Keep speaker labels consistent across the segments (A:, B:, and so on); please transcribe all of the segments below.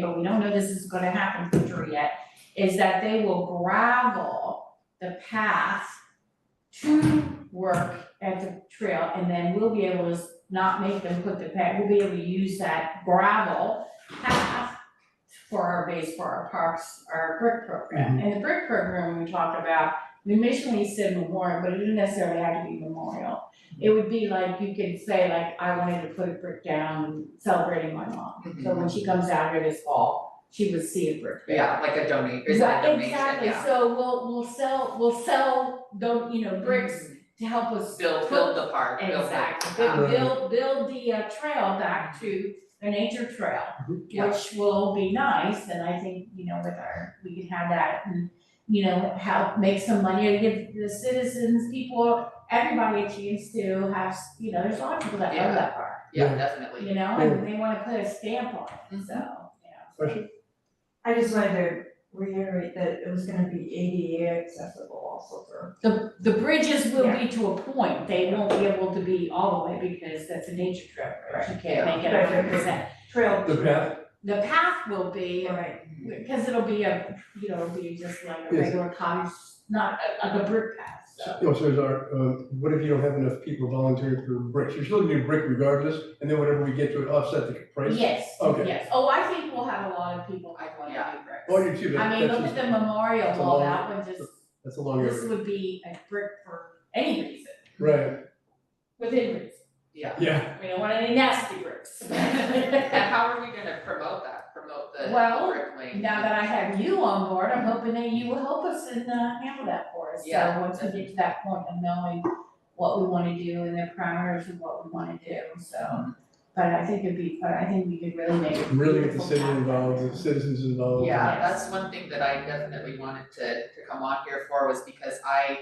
A: but we don't know this is gonna happen in future yet, is that they will gravel the path to work at the trail, and then we'll be able to s- not make them put the pad, we'll be able to use that gravel path for our base, for our parks, our brick program. And the brick program we talked about, we initially said memorial, but it didn't necessarily have to be memorial. It would be like, you could say like, I wanted to put a brick down celebrating my mom.
B: Mhm.
A: So when she comes out here this fall, she would see a brick.
B: Yeah, like a donate, is that a
A: Right,
B: donation, yeah.
A: Exactly, so we'll, we'll sell, we'll sell, do you know, bricks to help us.
B: Mm-hmm. Build, build the park, build the.
A: Exactly,
B: uh,
A: But build, build the uh, trail back to a nature trail,
B: Mm-hmm. Yeah.
A: which will be nice, and I think, you know, with our, we could have that and, you know, help make some money, or give the citizens, people, everybody a chance to have, s- you know, there's a lot of people that
B: Yeah.
A: love that park,
B: Yeah, definitely.
A: you know, and they wanna put a stamp on it,
B: Mm-hmm.
A: so, yeah.
C: Question?
D: I just wanted to reiterate that it was gonna be ADA accessible also for.
A: The, the bridges will be to a point, they won't be able to be all the way because that's a nature trail, bridge. you can't make it
D: Right.
A: hundred percent.
D: Trail.
C: The path,
A: The path will be,
D: Right,
A: because it'll be a, you know, it'll be just like a
C: Yes.
A: regular cottage, not a, like a brick path, so.
C: no, so is our, uh, what if you don't have enough people volunteering for bricks? You're still gonna do brick regardless, and then whatever we get to it offset the price?
A: Yes,
C: Okay.
A: yes, oh, I think we'll have a lot of people that wanna
B: Yeah.
A: do bricks.
C: Oh, you too, that-
A: I mean,
C: that's
A: look at
C: just,
A: the memorial
C: that's a
A: wall,
C: long-
A: that one just,
C: that's a long
A: this
C: area,
A: would be a brick for any reason,
C: right,
A: within reason,
B: Yeah.
C: yeah,
A: we don't want any nasty bricks.
B: And how are we gonna promote that, promote the
A: Well,
B: brick lane?
A: Now that I have you on board, I'm hoping that you will help us and uh handle that for us, so
B: Yeah.
A: once we get to that point of knowing what we wanna do and the parameters of what we wanna do,
B: Mm-hmm.
A: so. But I think it'd be, fun. I think we could really make. it
C: really get the city
A: beautiful.
C: involved, the citizens involved.
B: Yeah,
A: Yes.
B: that's one thing that I definitely wanted to to come on here for was because I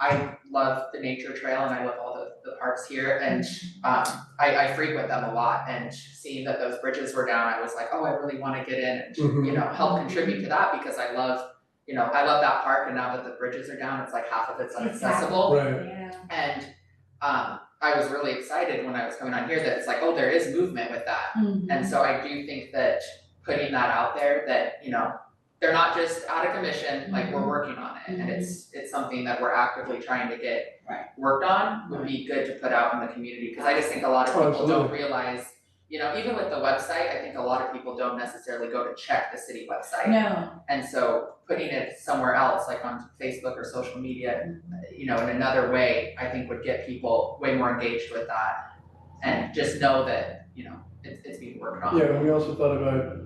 B: I love the nature trail and I love all the the parks here and um I I frequent them a lot and seeing that those bridges were down, I was like, oh, I really wanna get in and you
C: Mhm.
B: know, help contribute to that because I love, you know, I love that park and now that the bridges are down, it's like half of it's inaccessible.
C: Right,
A: Yeah,
B: And um I was really excited when I was coming on here that it's like, oh, there is movement with that.
A: Mhm.
B: Mm-hmm. And so I do think that putting that out there, that, you know, they're not just out of commission, like we're working on it, and it's, it's something that we're actively trying to get
A: Right.
B: worked on, would be good to put out in the community, cause I just think a lot of people don't
C: Absolutely.
B: realize, you know, even with the website, I think a lot of people don't necessarily go to check the city website.
A: No,
B: And so putting it somewhere else, like on Facebook or social media,
C: Mm-hmm.
B: you know, in another way, I think would get people way more engaged with that. And just know that, you know, it's it's being worked on.
C: yeah, and we also thought about,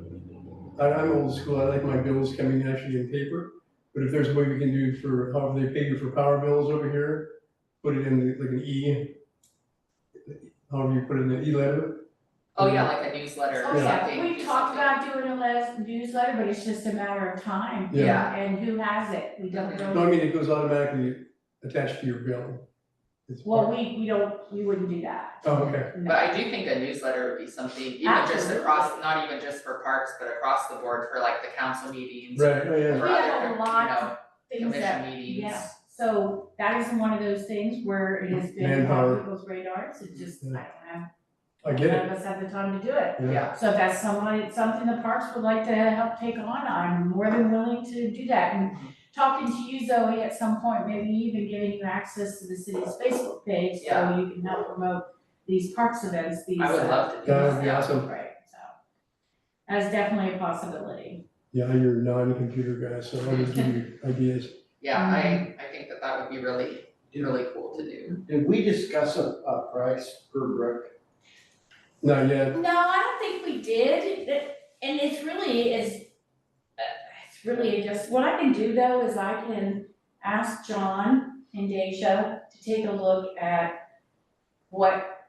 C: I, I'm old school, I like my bills coming actually in paper, but if there's a way we can do for, however they pay you for power bills over here, put it in like an E, however you put it in the E letter,
B: Oh, yeah, like a newsletter
A: oh
B: or
A: yeah,
B: something.
A: we
B: do
A: talked
B: something.
A: about doing a les- newsletter, but it's just a matter of time.
C: Yeah.
B: Yeah. Mm-hmm.
A: And who has it, we don't know.
C: No, I mean, it goes automatically attached to your bill. It's
A: Well,
C: part-
A: we we don't, we wouldn't do that.
C: Oh, okay.
A: No.
B: But I do think a newsletter would be something, even just
A: Absolutely.
B: across, not even just for parks, but across the board for like the council meetings.
C: Right, oh,
B: For
C: yeah,
A: We have a
B: other, you
A: lot of
B: know,
A: Things that
B: commission meetings.
A: yeah. So that is one of those things where it has been on
C: Manpower.
A: people's radars, it just, I don't have,
C: I get
A: none
C: it,
A: of us have the time to do it.
C: yeah,
A: So if that's someone, something the parks would like to help take on, I'm more than willing to do that. And talking to you Zoe at some point, maybe even giving you access to the city's Facebook page, so
B: Yeah.
A: you can help promote these parks events, these.
B: I would
A: uh,
B: love to do
C: That
B: this,
C: would be
B: yeah.
C: awesome.
A: Right, so. That's definitely a possibility.
C: yeah, you're a non-computer guy, so I'll just give you ideas.
B: Yeah, I
A: Mm-hmm.
B: I think that that would be really, really cool to do.
E: Did we discuss a, a price per brick?
C: Not yet,
A: No, I don't think we did, It- and it's really is, uh, it's really just, what I can do though is I can ask John and Deja to take a look at what,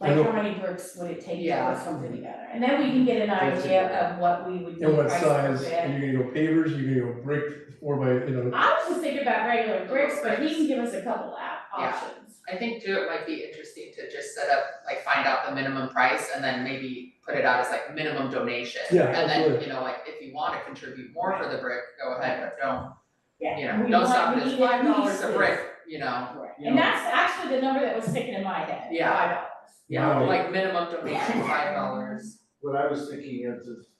C: I
A: like
C: know.
A: how many bricks would it take to
B: Yeah.
A: put something together? And then we can get an idea of what we would do
C: and what
A: price per
C: size,
A: bid.
C: are you gonna go pavers, are you gonna go brick, four by, you know,
A: I was just thinking about regular bricks, but he can give us a couple of op-
B: Yeah.
A: options.
B: I think too, it might be interesting to just set up, like find out the minimum price and then maybe put it out as like minimum donation.
C: Yeah,
B: And then,
C: absolutely.
B: you know, like if you wanna contribute more for the brick, go ahead, but don't,
A: Yeah.
B: you know,
A: We
B: don't
A: want-
B: stop
A: we
B: at this
A: need at
B: five dollars a
A: least
B: brick,
A: this.
B: you know?
E: You
A: And
E: know,
A: that's actually the number that was sticking in my head,
B: Yeah.
A: five dollars.
B: Yeah,
C: Wow.
B: like minimum donation, five dollars.
E: What I was thinking is, is